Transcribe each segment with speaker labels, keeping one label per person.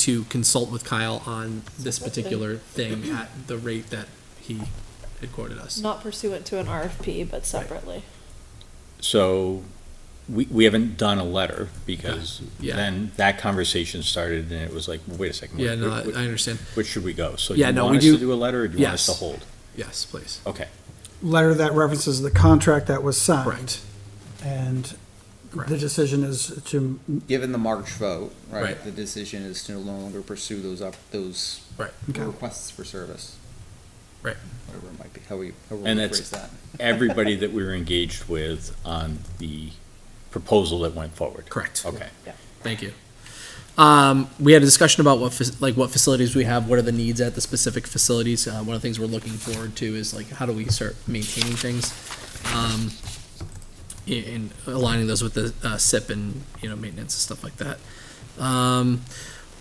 Speaker 1: to consult with Kyle on this particular thing at the rate that he had quoted us.
Speaker 2: Not pursuant to an RFP, but separately.
Speaker 3: So we, we haven't done a letter because
Speaker 1: Yeah.
Speaker 3: then that conversation started and it was like, wait a second.
Speaker 1: Yeah, no, I
Speaker 3: wh- wh-
Speaker 1: I understand.
Speaker 3: Which should we go? So
Speaker 1: Yeah,
Speaker 3: you
Speaker 1: no,
Speaker 3: want
Speaker 1: we
Speaker 3: us to
Speaker 1: do-
Speaker 3: do a letter or do you want us to
Speaker 1: Yes.
Speaker 3: hold?
Speaker 1: Yes, please.
Speaker 3: Okay.
Speaker 4: letter that references the contract that was signed.
Speaker 1: Correct.
Speaker 4: And
Speaker 1: Correct.
Speaker 4: Uh, the decision is to,
Speaker 5: Given the March vote, right,
Speaker 1: Right.
Speaker 5: the decision is to no longer pursue those up, those
Speaker 1: Right.
Speaker 4: Okay.
Speaker 5: requests for service.
Speaker 1: Right.
Speaker 5: Whatever it might be, how we, how we
Speaker 3: And that's-
Speaker 5: phrase that.
Speaker 3: Everybody that we were engaged with on the proposal that went forward.
Speaker 1: Correct.
Speaker 3: Okay.
Speaker 1: Thank you. Um, we had a discussion about what, fac- like what facilities we have, what are the needs at the specific facilities. Uh, one of the things we're looking forward to is like, how do we start maintaining things? Um, a- and aligning those with the, uh, SIP and, you know, maintenance and stuff like that. Um,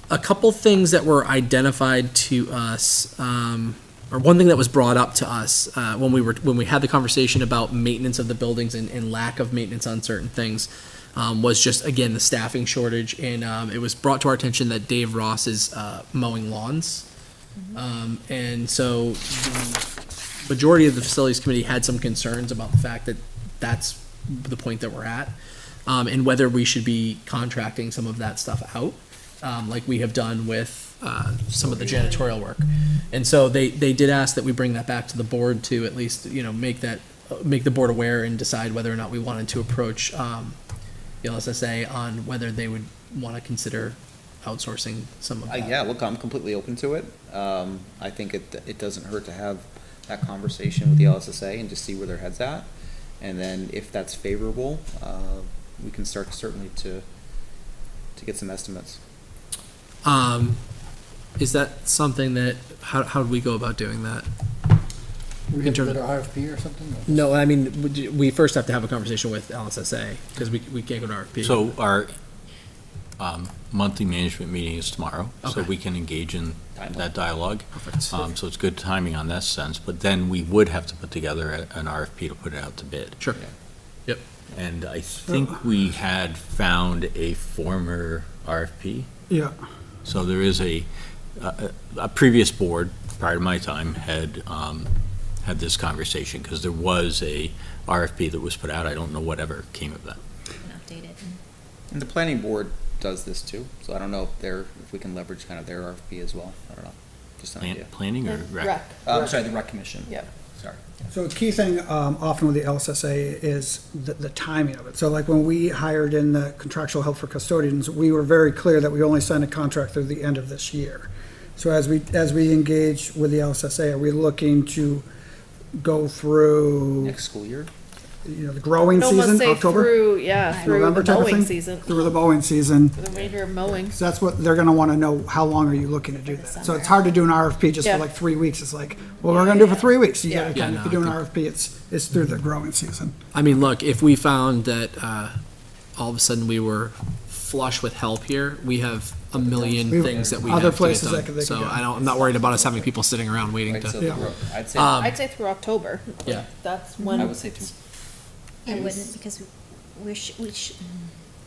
Speaker 1: a couple things that were identified to us, um, or one thing that was brought up to us, uh, when we were, when we had the conversation about maintenance of the buildings and, and lack of maintenance on certain things um, was just again the staffing shortage, and um, it was brought to our attention that Dave Ross is uh, mowing lawns, um, and so the majority of the facilities committee had some concerns about the fact that that's the point that we're at, um, and whether we should be contracting some of that stuff out, um, like we have done with uh, some of the janitorial work, and so they they did ask that we bring that back to the board to at least you know make that make the board aware and decide whether or not we wanted to approach. Um, the LSSA on whether they would want to consider outsourcing some of
Speaker 5: Uh,
Speaker 1: that.
Speaker 5: yeah, look, I'm completely open to it. Um, I think it, it doesn't hurt to have that conversation with the LSSA and just see where their head's at. And then if that's favorable, uh, we can start certainly to, to get some estimates.
Speaker 1: Um, is that something that, how, how do we go about doing that?
Speaker 6: We
Speaker 1: In
Speaker 6: get a
Speaker 1: terms-
Speaker 6: better RFP or something? or-
Speaker 1: No, I mean, we do- we first have to have a conversation with LSSA, because we, we can't go to RFP.
Speaker 3: So our um, monthly management meeting is tomorrow, so
Speaker 1: Okay.
Speaker 3: we can engage in that dialogue.
Speaker 1: Perfect.
Speaker 5: uh,
Speaker 3: Um, So it's good timing on that sense, but then we would have to put together a- an RFP to put it out to bid.
Speaker 1: Sure. Yep.
Speaker 3: And I think we had found a former RFP.
Speaker 4: yeah,
Speaker 3: So there is a, a a previous board, prior to my time, had, um, had this conversation, because there was a RFP that was put out. I don't know whatever came of that.
Speaker 7: update it.
Speaker 5: And the planning board does this too, so I don't know if they're, if we can leverage kind of their RFP as well. I don't know, just an
Speaker 3: Plan-
Speaker 5: idea.
Speaker 3: Planning or
Speaker 2: And
Speaker 3: rec?
Speaker 2: rec.
Speaker 5: Uh, I'm sorry, the rec commission.
Speaker 2: Yep.
Speaker 5: Sorry.
Speaker 4: So a key thing um, often with the LSSA is the, the timing of it. So like when we hired in the contractual help for custodians, we were very clear that we only signed a contract through the end of this year. So as we, as we engage with the LSSA, are we looking to go through,
Speaker 5: Next school year?
Speaker 4: you know, the growing
Speaker 2: I'd almost
Speaker 4: season,
Speaker 2: say
Speaker 4: October?
Speaker 2: through, yeah, through
Speaker 4: November
Speaker 2: the
Speaker 4: type of
Speaker 2: mowing
Speaker 4: thing?
Speaker 2: season,
Speaker 4: Through the mowing season.
Speaker 2: the major mowing.
Speaker 4: So that's what, they're gonna wanna know, how long are you looking to do that? So it's hard to do an RFP just
Speaker 2: Yeah.
Speaker 4: for like three weeks, it's like, well, we're gonna do it for three weeks. You
Speaker 2: Yeah.
Speaker 4: gotta,
Speaker 1: Yeah,
Speaker 4: kind of- if
Speaker 1: no,
Speaker 4: you do an
Speaker 1: I
Speaker 4: RFP, it's, it's through the growing season.
Speaker 1: I mean, look, if we found that, uh, all of a sudden we were flush with help here, we have a million
Speaker 4: We-
Speaker 1: things that we have
Speaker 4: other
Speaker 1: to get
Speaker 4: places that could-
Speaker 1: done.
Speaker 4: they could
Speaker 1: So
Speaker 4: go.
Speaker 1: I don't, I'm not worried about us having people sitting around waiting
Speaker 5: Right, so
Speaker 1: to,
Speaker 5: the
Speaker 4: Yeah.
Speaker 5: ro- I'd say,
Speaker 1: Um,
Speaker 2: I'd say through October.
Speaker 1: yeah.
Speaker 2: That's
Speaker 5: I
Speaker 2: when
Speaker 5: would say two.
Speaker 7: I wouldn't, because we sh we sh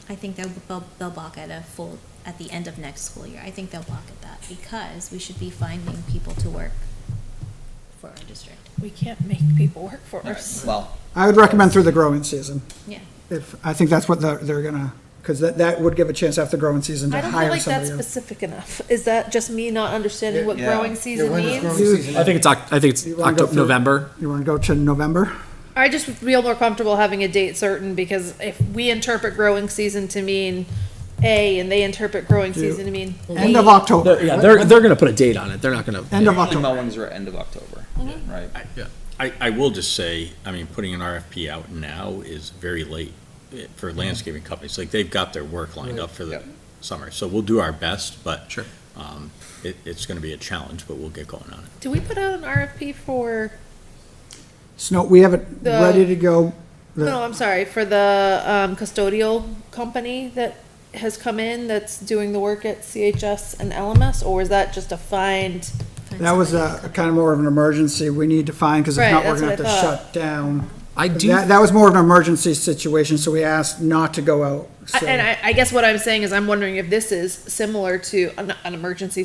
Speaker 7: I think they'll, they'll, they'll block at a full, at the end of next school year. I think they'll block at that, because we should be finding people to work for our district.
Speaker 2: we can't make people work for us.
Speaker 5: Well,
Speaker 4: I would recommend through the growing season.
Speaker 7: Yeah.
Speaker 4: If, I think that's what they're, they're gonna, because that, that would give a chance after growing season
Speaker 2: I
Speaker 4: to
Speaker 2: don't feel
Speaker 4: hire
Speaker 2: like that's
Speaker 4: somebody. else.
Speaker 2: specific enough. Is that just me not understanding what
Speaker 5: Yeah.
Speaker 2: growing
Speaker 5: Yeah,
Speaker 6: Yeah,
Speaker 2: season
Speaker 6: when is growing
Speaker 2: means?
Speaker 6: season?
Speaker 1: I think it's Oc, I think it's
Speaker 4: You wanna go
Speaker 1: October,
Speaker 4: through-
Speaker 1: November.
Speaker 4: You wanna go to November?
Speaker 2: I just feel more comfortable having a date certain because if we interpret growing season to mean A and they interpret growing season to mean
Speaker 4: End of
Speaker 2: B,
Speaker 4: October.
Speaker 1: They're- Yeah, they're, they're gonna put a date on it. They're not gonna.
Speaker 4: End of
Speaker 5: usually
Speaker 4: October.
Speaker 5: mowings are end of October, right?
Speaker 1: Yeah.
Speaker 3: I, I will just say, I mean, putting an RFP out now is very late eh, for landscaping companies. Like, they've got their work lined up for the
Speaker 5: Yep.
Speaker 3: summer, so we'll do our best, but.
Speaker 1: Sure.
Speaker 3: um, It, it's gonna be a challenge, but we'll get going on it.
Speaker 2: Do we put out an RFP for,
Speaker 4: Snow, we have it
Speaker 2: The-
Speaker 4: ready to go. The-
Speaker 2: no, I'm sorry, for the, um, custodial company that has come in that's doing the work at CHS and LMS, or is that just a find?
Speaker 7: find
Speaker 4: That was
Speaker 7: somebody
Speaker 4: a, kind of more of an emergency we need to find, because if
Speaker 2: Right,
Speaker 4: not, we're
Speaker 2: that's
Speaker 4: gonna have
Speaker 2: what
Speaker 4: to
Speaker 2: I thought.
Speaker 4: shut down
Speaker 1: I do.
Speaker 4: That, that was more of an emergency situation, so we asked not to go out.
Speaker 2: I-
Speaker 4: so-
Speaker 2: And I, I guess what I'm saying is I'm wondering if this is similar to an, an emergency